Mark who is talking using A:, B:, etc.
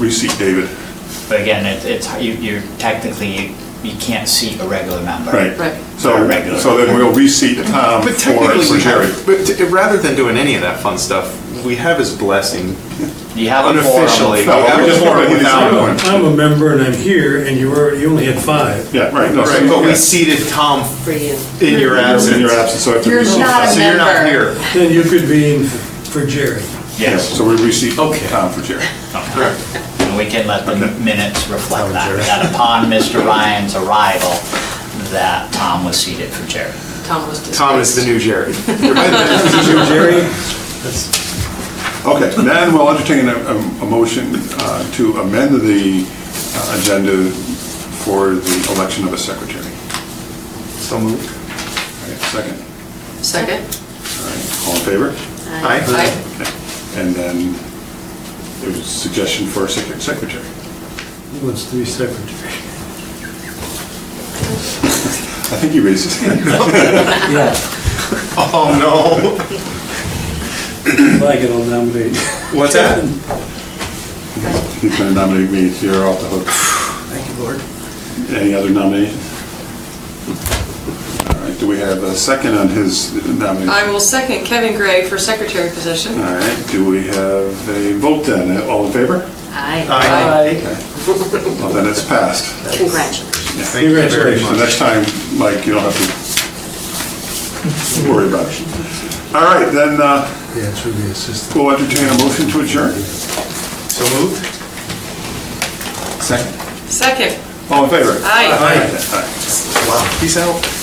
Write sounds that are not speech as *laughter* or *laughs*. A: receipt, David.
B: But again, it- it's, you- you're technically, you- you can't seat a regular member.
A: Right.
C: Right.
A: So,
B: Or regular.
A: so then we'll reseat Tom
D: But
A: for,
D: technically,
A: for
D: we
A: Jerry.
D: have, but t- rather than doing any of that fun stuff, we have his blessing
B: You have a forum.
D: unofficially.
A: No,
D: We have
A: we
D: a
A: just
D: forum
A: wanted to
D: without
A: do
D: him.
A: it.
E: I'm a member and I'm here, and you were, you only had five.
A: Yeah, right. no, so-
D: Right, but
A: okay.
D: we seated Tom
C: for you.
D: in your absence.
A: In your absence, so I have to
F: You're
A: reseat.
F: not-
D: So you're not
F: Member.
D: here.
E: Then you could be in for Jerry.
A: Yeah,
B: Yes.
A: So we reseat
D: Okay.
A: Tom for Jerry.
D: Correct.
B: And we can let the minutes reflect that, that upon Mr. Ryan's arrival, that Tom was seated for Jerry.
C: Tom was dismissed.
D: Tom is the new Jerry.
C: *laughs*
E: So Jerry,
A: Okay, then we'll entertain a, a- a motion uh, to amend the uh, agenda for the election of a secretary.
D: So moved.
A: All right, Second, all
C: Second?
A: right, all in favor?
D: Aye.
C: Aye.
A: And then there's a suggestion for a sec- secretary.
E: who wants to be secretary.
A: I think he raised his hand.
E: Yeah.
D: Oh,
E: I can all nominate.
D: no. What's that?
A: He's going to nominate me, so you're off the hook.
E: *sighs* Thank you, Lord.
A: Any other nominations? All right, do we have a second on his nomination?
C: I will second Kevin Gray for secretary
A: All
C: position.
A: right, do we have a vote then? All in favor?
F: Aye.
D: Aye.
A: Well, then it's passed.
F: Congratulations.
D: Thank you very
A: So next
D: much.
A: time, Mike, you don't have to worry about it. All right, then uh,
E: Yeah, it's really assistant.
A: we'll entertain a motion to adjourn.
D: So moved.
A: Second.
C: Second.
A: All in favor?
C: Aye.
A: Aye.
D: Wow. Peace out.